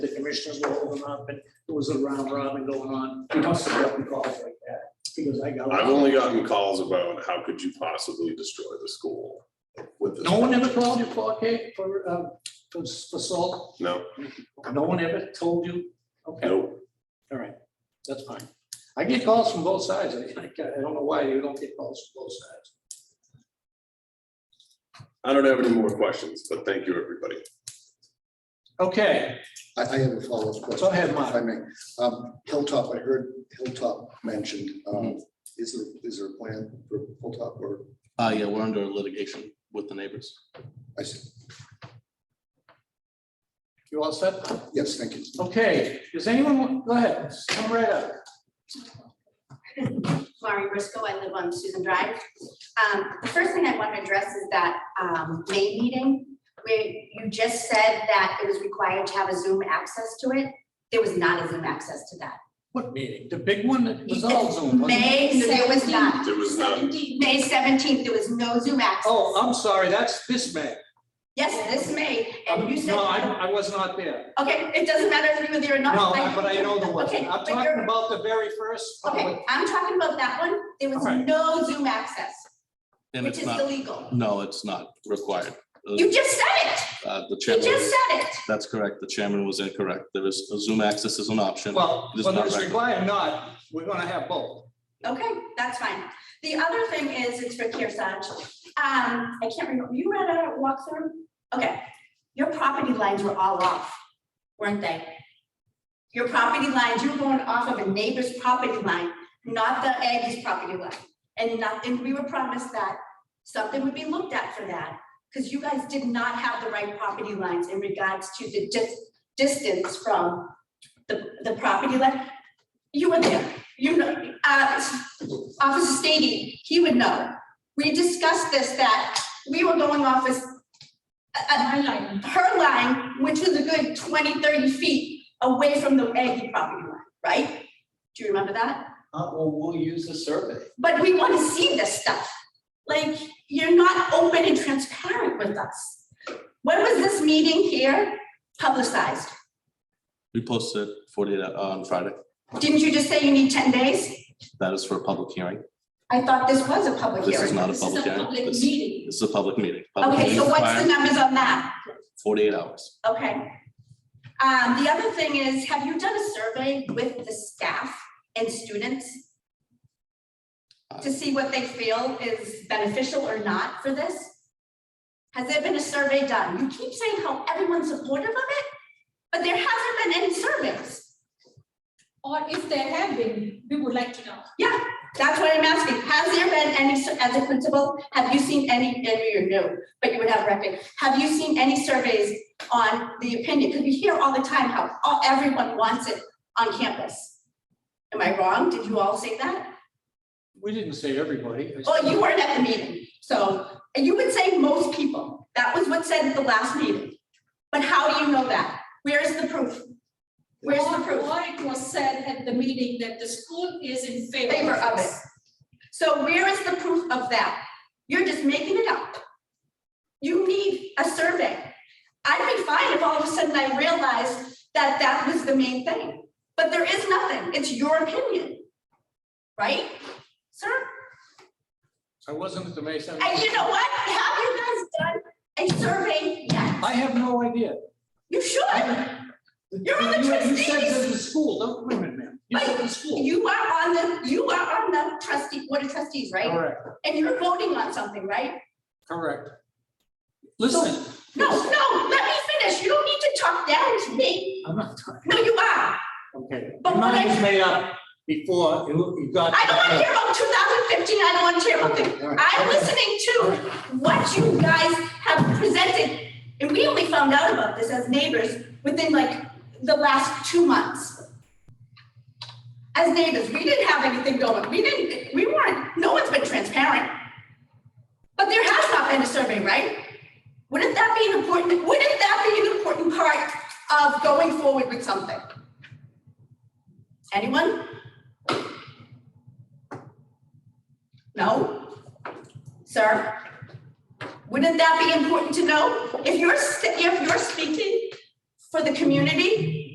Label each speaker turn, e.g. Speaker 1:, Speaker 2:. Speaker 1: commissioners were holding up, and it was a round robin going on. You must have gotten calls like that, because I got.
Speaker 2: I've only gotten calls about how could you possibly destroy the school with this?
Speaker 1: No one ever called you for, okay, for, uh, for, for salt?
Speaker 2: No,
Speaker 1: No one ever told you? Okay.
Speaker 2: no,
Speaker 1: All right, that's fine. I get calls from both sides. I, I don't know why you don't get calls from both sides.
Speaker 2: I don't have any more questions, but thank you, everybody.
Speaker 1: Okay,
Speaker 3: I, I have a follow-up question.
Speaker 1: Go ahead, Mark.
Speaker 3: If I may, um, Hilltop, I heard Hilltop mentioned, um, is there, is there a plan for Hilltop or,
Speaker 4: Uh, yeah, we're under litigation with the neighbors.
Speaker 3: I s-
Speaker 1: you all set?
Speaker 3: yes, thank you.
Speaker 1: Okay, does anyone, want- go ahead, come right up.
Speaker 5: Laurie Briscoe, I live on Susan Drive. Um, the first thing I want to address is that, um, May meeting, where you just said that it was required to have a Zoom access to it. There was not a Zoom access to that.
Speaker 1: What meeting? The big one that was all Zoom, wasn't it?
Speaker 5: May
Speaker 6: There was
Speaker 5: seventeenth,
Speaker 6: none.
Speaker 2: There was none.
Speaker 5: May seventeenth, there was no Zoom access.
Speaker 1: Oh, I'm sorry, that's this May.
Speaker 5: Yes, this May, and you
Speaker 1: Um,
Speaker 5: said,
Speaker 1: No, I, I was not there.
Speaker 5: okay, it doesn't matter if you were there or not.
Speaker 1: No, but I know there
Speaker 5: Okay,
Speaker 1: wasn't. I'm
Speaker 5: but you're-
Speaker 1: talking about the very first uh, public.
Speaker 5: Okay, I'm talking about that one. There was
Speaker 1: Alright.
Speaker 5: no Zoom access,
Speaker 4: And
Speaker 5: which
Speaker 4: it's
Speaker 5: is
Speaker 4: not,
Speaker 5: illegal.
Speaker 4: no, it's not required. Uh,
Speaker 5: You just said it.
Speaker 4: uh, The
Speaker 5: You
Speaker 4: chairman,
Speaker 5: just
Speaker 4: was-
Speaker 5: said it.
Speaker 4: that's correct. The chairman was incorrect. There is, Zoom access is an option.
Speaker 1: Well,
Speaker 4: It is
Speaker 1: whether
Speaker 4: not
Speaker 1: it's
Speaker 4: regular.
Speaker 1: required or not, we're gonna have both.
Speaker 5: Okay, that's fine. The other thing is, it's for Kirsach. Um, I can't remember, you read a walkthrough? Okay, your property lines were all off, weren't they? Your property lines, you were going off of a neighbor's property line, not the Aggie's property line. And nothing, we were promised that something would be looked at for that, because you guys did not have the right property lines in regards to the dis- distance from the, the property line. You were there, you know, uh, Officer Stady, he would know. We discussed this, that we were going off as a- a- her line, which was a good 20, 30 feet away from the Aggie property line, right? Do you remember that?
Speaker 7: Uh, well, we'll use the survey.
Speaker 5: But we want to see this stuff. Like, you're not open and transparent with us. When was this meeting here publicized?
Speaker 4: We posted forty-eight hou- on Friday.
Speaker 5: Didn't you just say you need 10 days?
Speaker 4: That is for a public hearing.
Speaker 5: I thought this was a public
Speaker 4: This is
Speaker 5: hearing.
Speaker 4: not a
Speaker 6: This is
Speaker 4: public
Speaker 6: a
Speaker 4: hearing.
Speaker 6: public
Speaker 4: This
Speaker 6: meeting.
Speaker 4: this is a public meeting. Public
Speaker 5: Okay, so
Speaker 4: meetings
Speaker 5: what's the
Speaker 4: require
Speaker 5: numbers on that?
Speaker 4: Forty-eight hours.
Speaker 5: Okay. Um, the other thing is, have you done a survey with the staff and students? To see what they feel is beneficial or not for this? Has there been a survey done? You keep saying how everyone's supportive of it, but there hasn't been any surveys.
Speaker 6: Or if there have been, we would like to know.
Speaker 5: That's what I'm asking. Has there been any, sur- as a principal, have you seen any, and you're new, but you would have record. Have you seen any surveys on the opinion? Because we hear all the time how all- everyone wants it on campus. Am I wrong? Did you all say that?
Speaker 1: We didn't say everybody.
Speaker 5: Well, you weren't at the meeting, so, and you would say most people. That was what said at the last meeting. But how do you know that? Where is the proof? Where's the
Speaker 6: Or-
Speaker 5: proof?
Speaker 6: Or it was said at the meeting that the school is in favor.
Speaker 5: favor of it.
Speaker 6: this.
Speaker 5: So where is the proof of that? You're just making it up. You need a survey. I'd be fine if all of a sudden I realized that that was the main thing, but there is nothing. It's your opinion. Right? Sir,
Speaker 1: I wasn't at the May
Speaker 5: and
Speaker 1: 17th.
Speaker 5: you know what? Have you guys done a survey yet?
Speaker 1: I have no idea.
Speaker 5: You should. You're on the
Speaker 1: You- You said
Speaker 5: trustees.
Speaker 1: to the school, don't, wait a minute, ma'am. You said to the school.
Speaker 5: You are on the, you are on the trustee, board of trustees, right?
Speaker 1: Correct,
Speaker 5: And you're voting on something, right?
Speaker 1: correct. Listen,
Speaker 5: No, no, let me finish. You don't need to talk down to me.
Speaker 1: I'm not talking,
Speaker 5: No, you are.
Speaker 1: okay.
Speaker 5: But
Speaker 1: Your
Speaker 5: what
Speaker 1: mind
Speaker 5: I-
Speaker 1: was made up before you you got.
Speaker 5: I don't want to hear about two thousand fifteen. I don't want to hear about things.
Speaker 3: All right.
Speaker 5: I'm listening to what you guys have presented. And we only found out about this as neighbors within like the last two months. As neighbors, we didn't have anything going. We didn't, we weren't, no one's been transparent. But there has not been a survey, right? Wouldn't that be an important, wouldn't that be an important part of going forward with something? Anyone? No? Sir? Wouldn't that be important to know? If you're, s- if you're speaking for the community,